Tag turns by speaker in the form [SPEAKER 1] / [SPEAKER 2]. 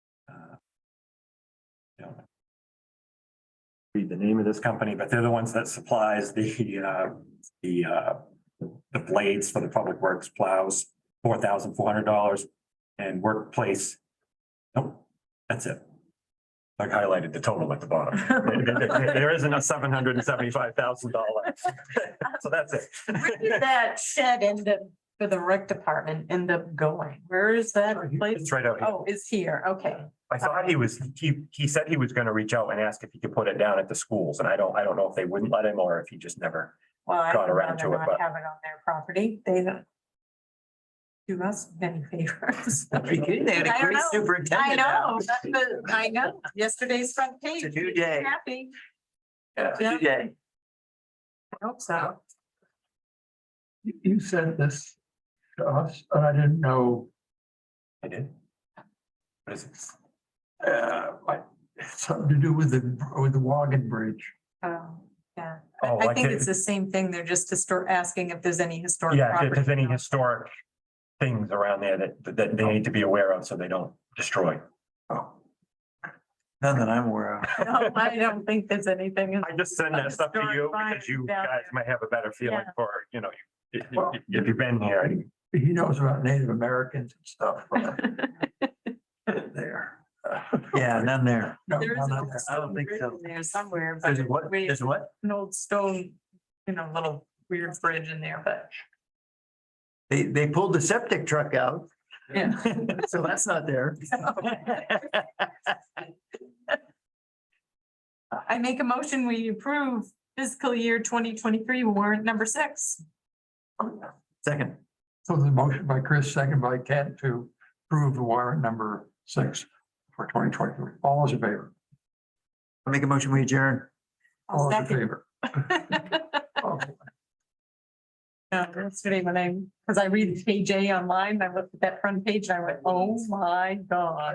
[SPEAKER 1] uh, read the name of this company, but they're the ones that supplies the, uh, the, uh, the blades for the public works plows, four thousand four hundred dollars and workplace. Nope, that's it. I highlighted the total at the bottom. There isn't a seven hundred and seventy-five thousand dollar. So that's
[SPEAKER 2] Where did
[SPEAKER 1] it.
[SPEAKER 2] that shed end up for the rec department end up going? Where is that place?
[SPEAKER 1] It's right out here.
[SPEAKER 2] Oh, it's here, okay.
[SPEAKER 1] I thought he was, he, he said he was gonna reach out and ask if he could put it down at the schools, and I don't, I don't know if they wouldn't let him or if he just never.
[SPEAKER 2] Well, I
[SPEAKER 1] Got
[SPEAKER 2] would
[SPEAKER 1] around to
[SPEAKER 2] rather
[SPEAKER 1] it,
[SPEAKER 2] not
[SPEAKER 1] but-
[SPEAKER 2] have it on their property. They don't do us many favors.
[SPEAKER 3] Are you kidding? They had
[SPEAKER 2] I
[SPEAKER 3] a
[SPEAKER 2] don't
[SPEAKER 3] great
[SPEAKER 2] know. I
[SPEAKER 3] superintendent. now.
[SPEAKER 2] know, that's the- I know. Yesterday's front page.
[SPEAKER 3] It's a new day.
[SPEAKER 2] Happy,
[SPEAKER 3] It's a
[SPEAKER 2] Yeah.
[SPEAKER 3] new day.
[SPEAKER 2] I hope so.
[SPEAKER 4] You- You sent this to us, and I didn't know,
[SPEAKER 1] I did. What is it?
[SPEAKER 4] uh, like, something to do with the, with the Wagon Bridge.
[SPEAKER 2] Um, Yeah,
[SPEAKER 1] Oh,
[SPEAKER 2] I- I
[SPEAKER 1] like
[SPEAKER 2] think
[SPEAKER 1] it-
[SPEAKER 2] it's the same thing. They're just histor- asking if there's any historic.
[SPEAKER 1] Yeah, if there's
[SPEAKER 2] property.
[SPEAKER 1] any historic things around there that, that they need to be aware of so they don't destroy.
[SPEAKER 4] Oh,
[SPEAKER 3] None that I'm aware of.
[SPEAKER 2] No, I don't think there's anything. in-
[SPEAKER 1] I just send that stuff to you because you guys might have a better feeling for, you know, if, if- if you've been here.
[SPEAKER 4] He knows about Native Americans and stuff. but- There.
[SPEAKER 3] Yeah, none there.
[SPEAKER 4] No,
[SPEAKER 2] There
[SPEAKER 4] no,
[SPEAKER 2] is
[SPEAKER 4] no,
[SPEAKER 2] a
[SPEAKER 4] no.
[SPEAKER 3] I don't think
[SPEAKER 2] bridge
[SPEAKER 3] so.
[SPEAKER 2] in there somewhere, but
[SPEAKER 3] There's a what?
[SPEAKER 2] we-
[SPEAKER 3] There's a what?
[SPEAKER 2] an old stone, you know, little weird bridge in there, but
[SPEAKER 3] They, they pulled the septic truck out,
[SPEAKER 2] yeah.
[SPEAKER 3] so that's not there.
[SPEAKER 2] I make a motion, we approve fiscal year twenty twenty-three warrant number six.
[SPEAKER 3] Second,
[SPEAKER 4] So the motion by Chris, second by Ken to approve the warrant number six for twenty twenty-three. All those in favor?
[SPEAKER 3] I make a motion, we adjourn.
[SPEAKER 4] All those in
[SPEAKER 2] Second.
[SPEAKER 4] favor? Okay.
[SPEAKER 2] No, Yesterday when I, because I read page A online, I looked at that front page and I went, oh my God.